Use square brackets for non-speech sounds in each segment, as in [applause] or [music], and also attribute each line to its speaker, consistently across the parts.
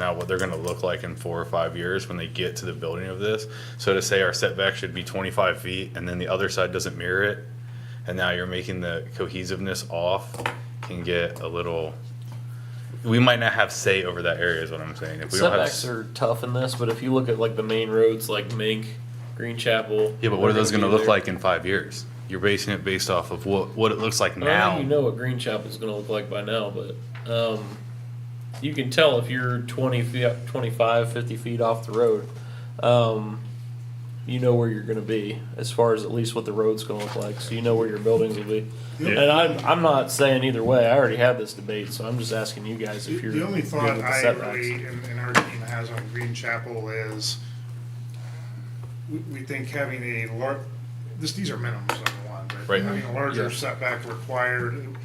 Speaker 1: now what they're gonna look like in four or five years when they get to the building of this. So to say our setback should be twenty-five feet and then the other side doesn't mirror it, and now you're making the cohesiveness off can get a little, we might not have say over that area is what I'm saying. If we don't have
Speaker 2: Setbacks are tough in this, but if you look at like the main roads, like Mink, Green Chapel.
Speaker 1: Yeah, but what are those gonna
Speaker 2: be
Speaker 1: look
Speaker 2: there.
Speaker 1: like in five years? You're basing it based off of what, what it looks like
Speaker 2: I don't
Speaker 1: now.
Speaker 2: think you know what Green Chapel's gonna look like by now, but, um, you can tell if you're twenty feet, twenty-five, fifty feet off the road. Um, you know where you're gonna be, as far as at least what the road's gonna look like, so you know where your buildings will be. And
Speaker 1: Yeah.
Speaker 2: I'm, I'm not saying either way, I already had this debate, so I'm just asking you guys
Speaker 3: The
Speaker 2: if you're.
Speaker 3: the only
Speaker 2: good
Speaker 3: thought
Speaker 2: with the
Speaker 3: I
Speaker 2: setbacks.
Speaker 3: really, and, and our team has on Green Chapel is, we, we think having a lar, this, these are minimums, number one, but
Speaker 1: Right.
Speaker 3: having a larger
Speaker 1: Yeah.
Speaker 3: setback required,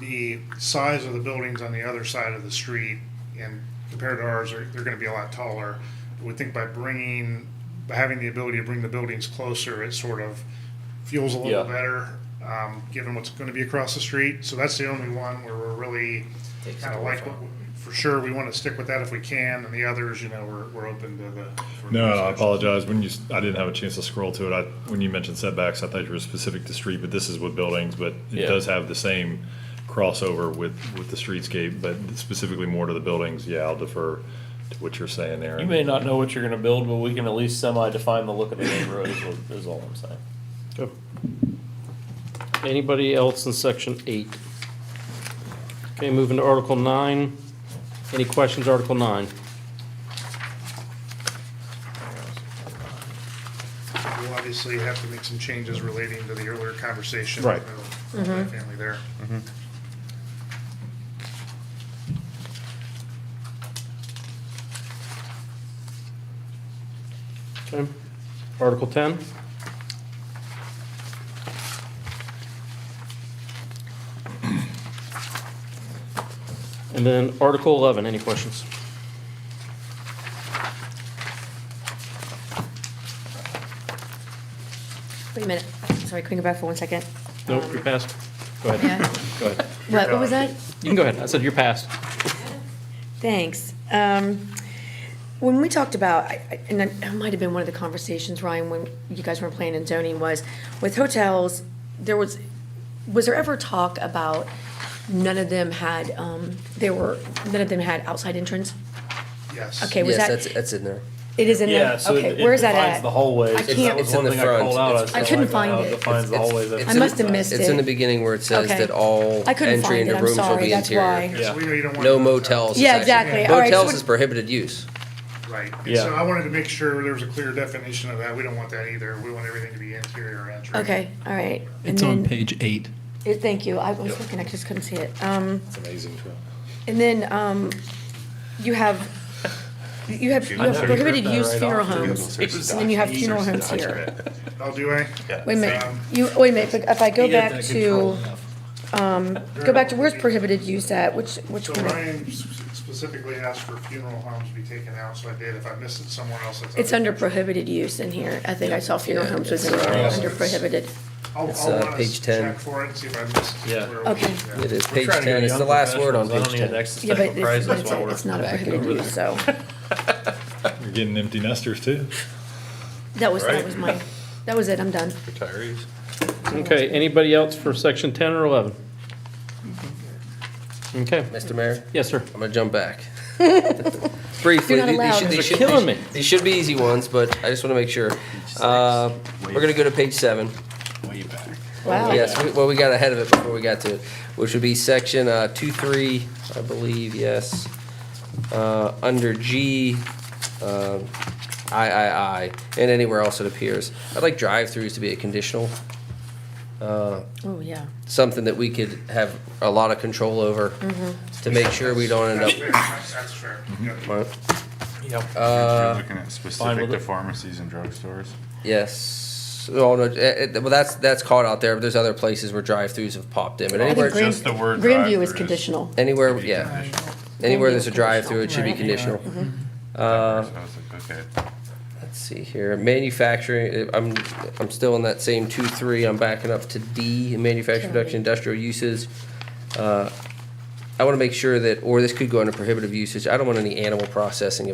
Speaker 3: the size of the buildings on the other side of the street and compared to ours, are they're gonna be a lot taller. We think by bringing, by having the ability to bring the buildings closer, it sort of feels a little
Speaker 2: Yeah.
Speaker 3: better, um, given what's gonna be across the street. So that's the only one where we're really kind of like, what for sure, we want to stick with that if we can, and the others, you know, we're, we're open to the.
Speaker 4: No, I apologize. When you, s- I didn't have a chance to scroll to it. I, when you mentioned setbacks, I thought you were specific to street, but this is with buildings, but
Speaker 2: Yeah.
Speaker 4: it does have the same crossover with, with the streetscape, but specifically more to the buildings. Yeah, I'll defer to what you're saying there.
Speaker 2: You may not know what you're gonna build, but we can at least semi-define the look of the neighborhood is, what- is all I'm saying.
Speaker 5: Anybody else in section eight? Okay, moving to Article nine. Any questions, Article nine?
Speaker 3: We'll obviously have to make some changes relating to the earlier conversation.
Speaker 4: Right.
Speaker 3: with the
Speaker 6: Mm-hmm.
Speaker 3: Family there.
Speaker 5: Okay. Article ten? And then Article eleven, any questions?
Speaker 6: Wait a minute, sorry, can we go back for one second?
Speaker 5: Nope,
Speaker 6: Um,
Speaker 5: you're passed. Go ahead,
Speaker 6: yeah.
Speaker 5: go ahead.
Speaker 6: What, what was that?
Speaker 5: You can go ahead. I said you're passed.
Speaker 6: Thanks. Um, When we talked about, I- I- and it might have been one of the conversations, Ryan, when you guys were playing in zoning was, with hotels, there was, was there ever talk about none of them had, um, there were, none of them had outside entrance?
Speaker 4: Mm-hmm.
Speaker 3: Yes.
Speaker 6: Okay, was
Speaker 7: yes,
Speaker 6: that,
Speaker 7: that's that's in there.
Speaker 6: it is in
Speaker 2: Yeah,
Speaker 6: there?
Speaker 2: so it-
Speaker 6: Okay,
Speaker 2: it
Speaker 6: where's that
Speaker 2: defines
Speaker 6: at?
Speaker 2: the hallways.
Speaker 6: I can't-
Speaker 2: That was
Speaker 7: It's in
Speaker 2: one
Speaker 7: the
Speaker 2: thing I called
Speaker 7: front.
Speaker 2: out.
Speaker 7: It's-
Speaker 2: said,
Speaker 6: I couldn't
Speaker 2: like,
Speaker 6: find
Speaker 2: how
Speaker 6: it.
Speaker 2: defines the
Speaker 7: It's-
Speaker 2: hallways.
Speaker 7: it's-
Speaker 6: I must have
Speaker 2: That's-
Speaker 6: missed
Speaker 7: It's in the
Speaker 6: it.
Speaker 7: beginning where it says
Speaker 6: Okay.
Speaker 7: that all
Speaker 6: I couldn't
Speaker 7: entry
Speaker 6: find
Speaker 7: into
Speaker 6: it, I'm
Speaker 7: rooms will
Speaker 6: sorry,
Speaker 7: be
Speaker 6: that's
Speaker 7: interior.
Speaker 6: why.
Speaker 3: Okay, so we know you don't want
Speaker 7: No
Speaker 3: to-
Speaker 7: motels.
Speaker 6: Yeah,
Speaker 7: is actually-
Speaker 6: exactly. All right, so
Speaker 7: Motels
Speaker 6: we're-
Speaker 7: is prohibited use.
Speaker 3: Right, and
Speaker 2: Yeah.
Speaker 3: so I wanted to make sure there was a clear definition of that, we don't want that either, we want everything to be interior or entry.
Speaker 6: Okay, all right. And
Speaker 8: It's on
Speaker 6: then-
Speaker 8: page eight.
Speaker 6: it- Thank you, I was looking, I just couldn't see it. Um,
Speaker 1: It's amazing.
Speaker 6: And then um, you have, you have you have
Speaker 2: know,
Speaker 6: prohibited
Speaker 2: you ripped that
Speaker 6: use
Speaker 2: right
Speaker 6: funeral
Speaker 2: off.
Speaker 6: homes, and then you have funeral homes here.
Speaker 3: Oh, do I?
Speaker 6: Wait a minute, you, wait a minute, but if I go back to, um, go back to where's prohibited use at, which, which
Speaker 3: So
Speaker 6: one?
Speaker 3: Ryan s- specifically asked for funeral homes to be taken out, so I did, if I missed it somewhere else, it's.
Speaker 6: It's under prohibited use in here. I think I saw funeral homes was in there, under prohibited.
Speaker 3: I'll,
Speaker 7: It's,
Speaker 3: I'll
Speaker 7: uh,
Speaker 3: wanna
Speaker 7: page 10.
Speaker 3: check for it and see if I missed.
Speaker 2: Yeah.
Speaker 3: where it was.
Speaker 6: Okay.
Speaker 3: Yeah.
Speaker 7: It is
Speaker 2: We're
Speaker 7: page
Speaker 2: trying to go
Speaker 7: ten. It's
Speaker 2: young
Speaker 7: the last word on
Speaker 2: professionals.
Speaker 7: page
Speaker 2: I don't need an
Speaker 7: ten.
Speaker 6: Yeah, but
Speaker 2: existential
Speaker 6: it's, but
Speaker 2: crisis
Speaker 6: it's
Speaker 2: while
Speaker 6: a-
Speaker 2: we're
Speaker 6: it's not a
Speaker 7: back
Speaker 6: prohibited
Speaker 7: over
Speaker 6: use, so
Speaker 4: You're getting empty nesters too.
Speaker 6: that was, that
Speaker 1: Right.
Speaker 6: was my, that was it, I'm done.
Speaker 1: Retirees.
Speaker 5: Okay, anybody else for section ten or eleven? Okay,
Speaker 7: Mr. Mayor,
Speaker 5: yes, sir.
Speaker 7: I'm gonna
Speaker 6: [laughs]
Speaker 7: jump back. Briefly,
Speaker 6: You're not
Speaker 7: these- these
Speaker 6: allowed.
Speaker 7: should-
Speaker 6: These
Speaker 7: these
Speaker 5: are
Speaker 7: should-
Speaker 5: killing me.
Speaker 7: These should be easy ones, but I just want to make sure. Uh, we're gonna go to page seven.
Speaker 1: Way back.
Speaker 6: Wow.
Speaker 7: Yes, we- well, we got ahead of it before we got to it, which would be section uh, two, three, I believe, yes. Uh, Under G, uh, I, I, I, and anywhere else it appears. I'd like drive-throughs to be a conditional,
Speaker 6: Oh, yeah.
Speaker 7: something that we could have a lot of control over to make sure we don't end
Speaker 3: That's
Speaker 7: up.
Speaker 3: fair, that's fair.
Speaker 7: Mm-hmm.
Speaker 3: Yeah.
Speaker 1: Looking at
Speaker 5: Uh, fine
Speaker 1: specific
Speaker 5: with
Speaker 1: to
Speaker 5: it.
Speaker 1: pharmacies and drugstores.
Speaker 7: Yes, oh, no, eh, eh, well, that's, that's caught out there, but there's other places where drive-throughs have popped in, but
Speaker 6: I
Speaker 7: anywhere,
Speaker 6: think Grand-
Speaker 1: just the word
Speaker 6: Grandview is
Speaker 1: drive-through is-
Speaker 6: conditional.
Speaker 7: anywhere, yeah. Anywhere there's a drive-through, it should be
Speaker 6: Right.
Speaker 7: conditional.
Speaker 1: Uh. I was like, okay.
Speaker 7: Let's see here, manufacturing, uh, I'm, I'm still in that same two, three, I'm backing up to D, manufacturing, production, industrial uses. Uh, I want to make sure that, or this could go under prohibitive usage. I don't want any animal processing of